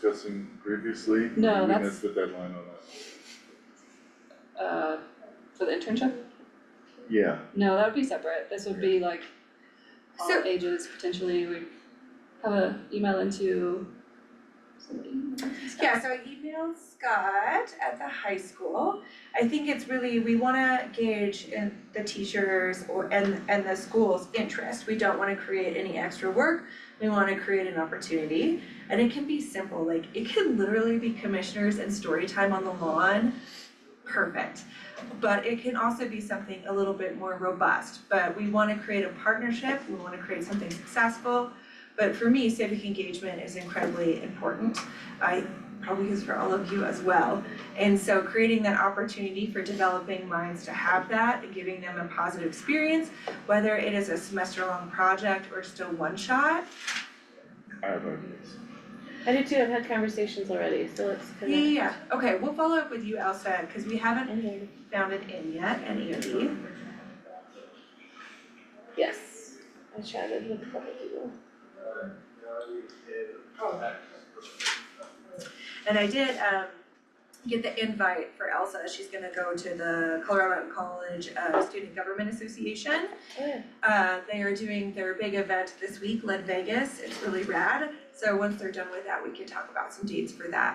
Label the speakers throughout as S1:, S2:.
S1: discussing previously?
S2: No,
S1: We
S2: that's-
S1: missed the deadline on that.
S2: uh, for the internship?
S1: Yeah,
S2: No, that would be separate, this would be like all
S3: So-
S2: ages potentially, we have a email into somebody.
S3: Yeah, so I emailed Scott at the high school. I think it's really, we wanna gauge in the teachers or and and the school's interest. We don't wanna create any extra work. We wanna create an opportunity. And it can be simple, like it can literally be commissioners and story time on the lawn. Perfect. But it can also be something a little bit more robust. But we wanna create a partnership, we wanna create something successful. But for me, civic engagement is incredibly important. I probably is for all of you as well. And so creating that opportunity for developing minds to have that and giving them a positive experience, whether it is a semester long project or just a one shot.
S1: I have ideas.
S4: I did too, I've had conversations already, so it's
S3: Yeah,
S4: kind of.
S3: yeah, yeah. Okay, we'll follow up with you, Elsa, because we haven't
S4: ending.
S3: found it in yet, and Andy.
S4: Yes, I chatted with a couple people.
S3: And I did um get the invite for Elsa. She's gonna go to the Colorado College uh Student Government Association.
S4: Oh, yeah.
S3: Uh, they are doing their big event this week, Lead Vegas, it's really rad, so once they're done with that, we can talk about some dates for that.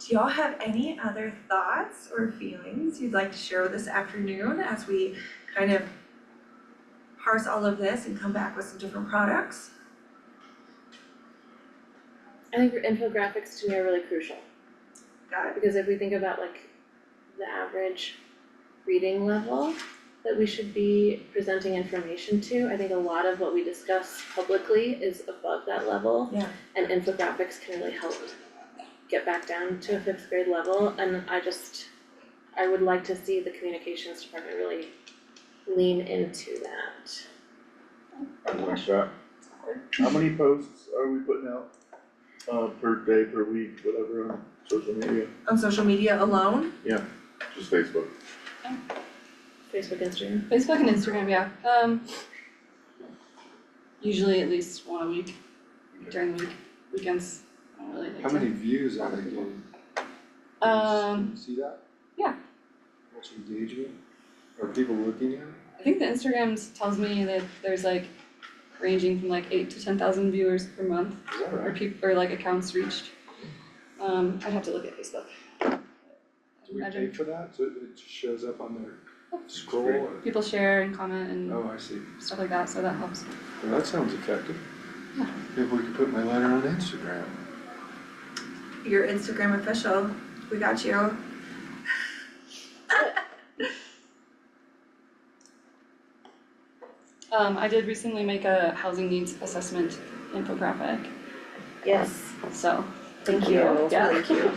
S3: Do y'all have any other thoughts or feelings you'd like to share this afternoon as we kind of parse all of this and come back with some different products?
S4: I think infographics to me are really crucial,
S3: Got it?
S4: because if we think about like the average reading level that we should be presenting information to, I think a lot of what we discuss publicly is above that level.
S3: Yeah.
S4: And infographics can really help get back down to a fifth grade level, and I just, I would like to see the communications department really lean into that.
S1: I like that.
S2: Awkward.
S1: How many posts are we putting out, uh, per day, per week, whatever, on social media?
S3: On social media alone?
S1: Just Facebook.
S4: Facebook, Instagram.
S2: Facebook and Instagram, yeah, um. Usually at least one a week, during the week, weekends, I don't really like
S5: How
S2: to-
S5: many views are they getting? Can you s-
S2: Um,
S5: Can you see that?
S2: yeah.
S5: What's engagement? Are people looking at it?
S2: I think the Instagram s- tells me that there's like ranging from like eight to ten thousand viewers per month
S5: Is that
S2: or
S5: right?
S2: peop- or like accounts reached. Um, I'd have to look at Facebook.
S5: Do we pay
S2: Imagine
S5: for that? So it just shows up on their scroll
S1: Great.
S5: or?
S2: people share and comment and
S5: Oh, I see.
S2: stuff like that, so that helps.
S5: Well, that sounds effective.
S2: Yeah.
S5: Maybe we could put my letter on Instagram.
S3: Your Instagram official, we got you.
S2: Um, I did recently make a housing needs assessment infographic,
S6: Yes,
S2: so,
S6: thank you,
S2: Yeah.
S6: thank you.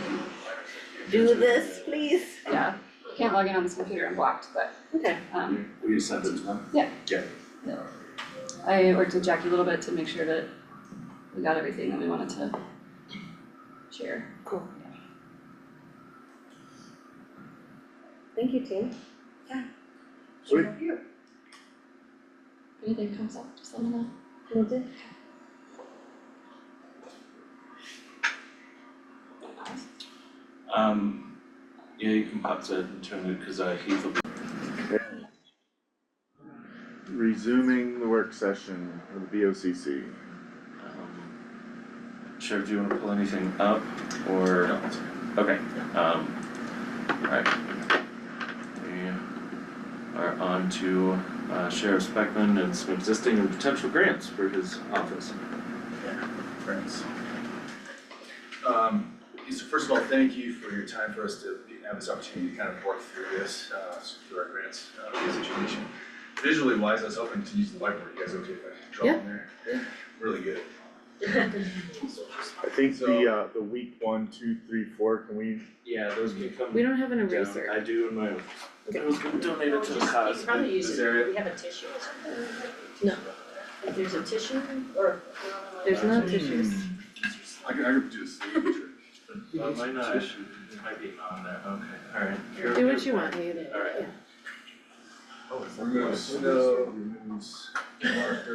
S6: Do this, please.
S2: yeah. I Can't log in on this computer, I'm blocked, but,
S4: Okay.
S2: um,
S7: Will you send it to them?
S2: I worked with Jackie a little bit to make sure that we got everything that we wanted to share.
S6: Cool.
S4: Thank you, team.
S1: Sweet.
S2: If anything comes up, just let me know.
S4: Will do.
S7: Um, yeah, you can pop that and turn it, cause uh, Heath will be
S1: Resuming the work session for the B O C C.
S7: Um, Sheriff, do you wanna pull anything up or? Okay, um, alright. We are on to uh, Sheriff Speckman and some existing and potential grants for his office.
S8: Friends. Um, so first of all, thank you for your time for us to be- have this opportunity to kind of work through this, uh, through our grants, uh, via situation. Visually wise, I was hoping to use the whiteboard, you guys okay if I draw in there? Yeah. Really good.
S1: I think the, uh, the week one, two, three, four, can we,
S7: Yeah, those can come
S4: We don't have an
S7: down,
S4: eraser.
S7: I do in my own. I was gonna donate it to the cause, but this area,
S6: We have a tissue or something.
S4: No.
S6: If there's a tissue or. Mm.
S4: There's no tissues.
S1: Hmm.
S8: I could, I could do a sleeve trick.
S7: uh, might not, it might be on there, okay, alright. You're
S4: Do
S7: okay
S4: what you
S7: with
S4: want, Nate.
S7: Alright.
S8: Removes snow, removes marker.